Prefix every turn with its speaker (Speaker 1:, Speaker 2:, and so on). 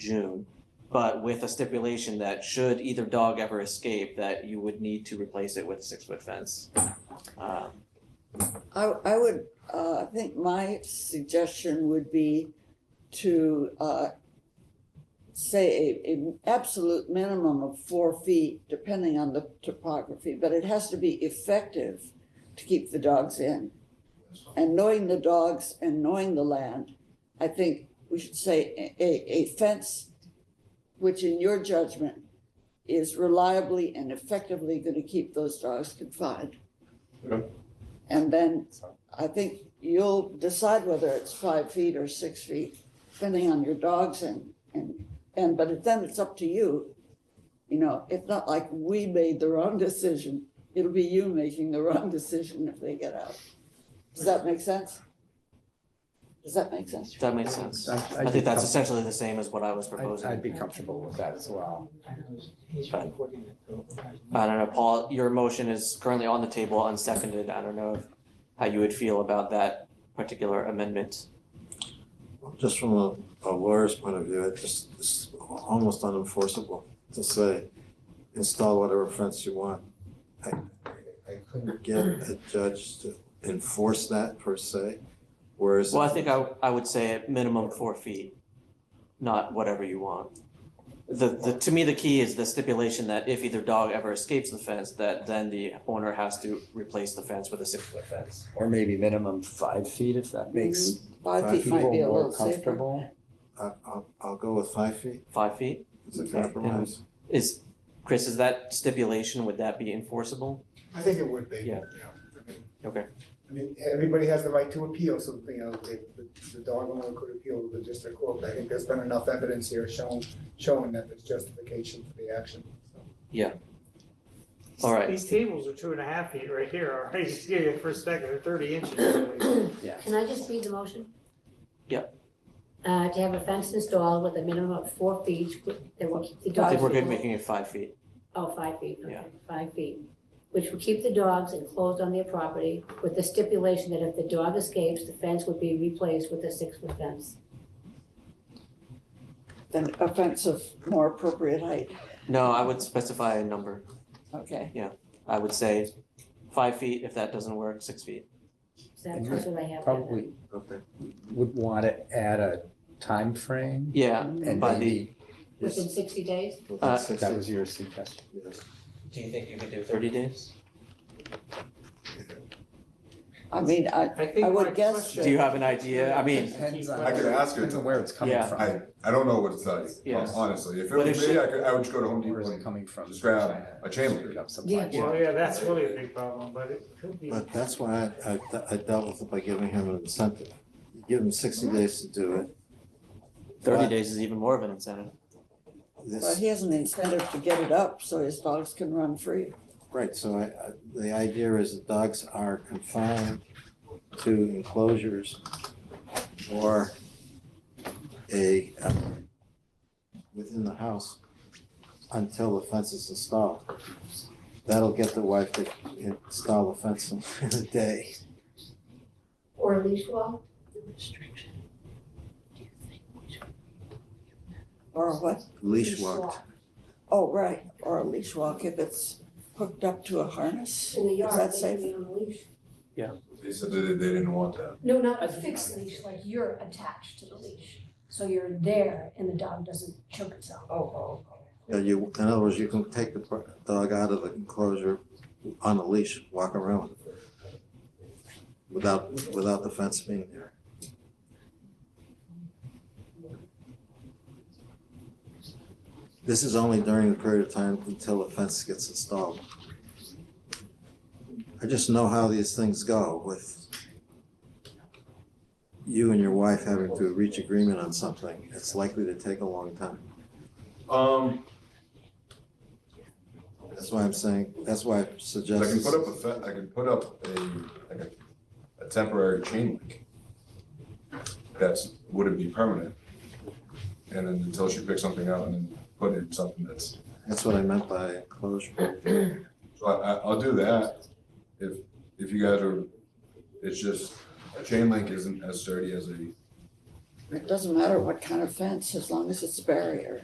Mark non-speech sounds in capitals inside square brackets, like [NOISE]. Speaker 1: June, but with a stipulation that should either dog ever escape, that you would need to replace it with a six-foot fence. Uh,
Speaker 2: I, I would, uh, I think my suggestion would be to, uh, say a, a absolute minimum of four feet, depending on the topography, but it has to be effective to keep the dogs in. And knowing the dogs and knowing the land, I think we should say a- a, a fence, which in your judgment is reliably and effectively gonna keep those dogs confined.
Speaker 3: Okay.
Speaker 2: And then I think you'll decide whether it's five feet or six feet, depending on your dogs and, and, and, but then it's up to you. You know, it's not like we made the wrong decision. It'll be you making the wrong decision if they get out. Does that make sense? Does that make sense?
Speaker 1: That makes sense.
Speaker 3: I-
Speaker 1: I
Speaker 3: I'd
Speaker 1: think
Speaker 3: be
Speaker 1: that's
Speaker 3: com-
Speaker 1: essentially the same as what I was
Speaker 3: I'd- I'd
Speaker 1: proposing.
Speaker 3: be comfortable with that as well.
Speaker 1: Fine. I don't know, Paul, your motion is currently on the table, unseconded. I don't know if- how you would feel about that particular amendment.
Speaker 4: Just from a a lawyer's point of view, it just, it's almost unenforceable to say, install whatever fence you want. I I couldn't get a judge to enforce that per se, whereas.
Speaker 1: Well, I think I, I would say at minimum four feet, not whatever you want. The, the, to me, the key is the stipulation that if either dog ever escapes the fence, that then the owner has to replace the fence with a six-foot fence.
Speaker 3: Or maybe minimum five feet if that makes
Speaker 2: Mm-hmm. Five feet might
Speaker 3: people
Speaker 2: be a
Speaker 3: more
Speaker 2: little safer.
Speaker 3: comfortable.
Speaker 4: I- I'll, I'll go with five feet
Speaker 1: Five feet?
Speaker 4: as a compromise.
Speaker 1: Is, Chris, is that stipulation, would that be enforceable?
Speaker 5: I think it would be.
Speaker 1: Yeah.
Speaker 5: I mean-
Speaker 1: Okay.
Speaker 5: I mean, everybody has the right to appeal something, you know, the, the- the dog owner could appeal to the district court. I think there's been enough evidence here showing, showing that there's justification for the action. so.
Speaker 1: All right.
Speaker 6: These tables are two and a half feet right here, all right, [LAUGHS] just give you for a second, they're thirty inches.
Speaker 7: Can I just read the motion?
Speaker 1: Yep.
Speaker 7: Uh, to have a fence installed with a minimum of four feet, that will keep the dogs.
Speaker 1: I think we're good
Speaker 7: enclosed-
Speaker 1: making it five feet.
Speaker 7: Oh, five feet, okay,
Speaker 1: Yeah.
Speaker 7: five feet, which will keep the dogs enclosed on their property with the stipulation that if the dog escapes, the fence would be replaced with a six-foot fence.
Speaker 2: Then a fence of more appropriate height,
Speaker 1: No, I would specify a number.
Speaker 2: okay?
Speaker 1: I would say five feet. If that doesn't work, six feet.
Speaker 7: So that's
Speaker 3: And
Speaker 7: that's what I have. down there.
Speaker 3: Probably
Speaker 4: Okay.
Speaker 3: would want to add a time frame,
Speaker 1: Yeah,
Speaker 3: and
Speaker 1: By the-
Speaker 3: maybe
Speaker 7: Within sixty days?
Speaker 4: Within
Speaker 1: Uh,
Speaker 4: six
Speaker 3: that
Speaker 4: feet,
Speaker 3: was your suggestion.
Speaker 4: yes.
Speaker 1: Do you think you could do thirty days?
Speaker 2: I mean, I, I would guess
Speaker 1: Do you have an idea? I mean,
Speaker 3: Depends on-
Speaker 8: I could ask her
Speaker 3: Depends on
Speaker 8: to,
Speaker 3: where it's coming
Speaker 1: Yeah.
Speaker 8: I,
Speaker 3: from.
Speaker 8: I don't know what it says,
Speaker 1: Yeah.
Speaker 8: honestly, if it
Speaker 1: But if
Speaker 8: was
Speaker 1: she-
Speaker 8: me, I could, I would just go to Home
Speaker 3: Where is
Speaker 8: Depot
Speaker 3: it
Speaker 8: and
Speaker 3: coming from?
Speaker 8: Just grab
Speaker 3: China,
Speaker 8: a chain
Speaker 3: pick
Speaker 8: link.
Speaker 3: up supply
Speaker 7: Yeah.
Speaker 3: chain.
Speaker 6: Well, yeah, that's really a big problem, but it could be.
Speaker 4: But that's why I, I I dealt with it by giving him an incentive. You Give him sixty days to do it.
Speaker 1: thirty
Speaker 4: But
Speaker 1: days is even more of an incentive.
Speaker 2: Well,
Speaker 4: This,
Speaker 2: he has an incentive to get it up so his dogs can run free.
Speaker 4: right, so I, I, the idea is that dogs are confined to enclosures or a, um, within the house until the fence is installed. That'll get the wife to install the fence in [LAUGHS] a day.
Speaker 7: Or a leash wall?
Speaker 2: Or what?
Speaker 4: Leash walked.
Speaker 2: Oh, right, or a leash walk if it's hooked up to a harness.
Speaker 7: In the
Speaker 2: Is
Speaker 7: yard,
Speaker 2: that
Speaker 7: they
Speaker 2: safe?
Speaker 7: can be on a leash.
Speaker 8: They said that they, they didn't want that.
Speaker 9: No, not a fixed leash, like you're attached to the leash. So you're there and the dog doesn't choke itself.
Speaker 2: Oh,
Speaker 4: Yeah, you, in other words, you can take the pro- dog out of the enclosure on a leash, walk around with it, without, without the fence being there. This is only during the period of time until the fence gets installed. I just know how these things go with you and your wife having to reach agreement on something. It's likely to take a long time.
Speaker 8: Um,
Speaker 4: That's why I'm saying, that's why I
Speaker 8: I
Speaker 4: suggest.
Speaker 8: can put up a fe- I can put up a, like a, a temporary chain link. That's, wouldn't be permanent. And then until she picks something out and then put in something that's,
Speaker 4: That's what I meant by enclosure.
Speaker 8: so I, I, I'll do that. If, if you guys are, it's just, a chain link isn't as sturdy as a
Speaker 2: It doesn't matter what kind of fence, as long as it's a barrier.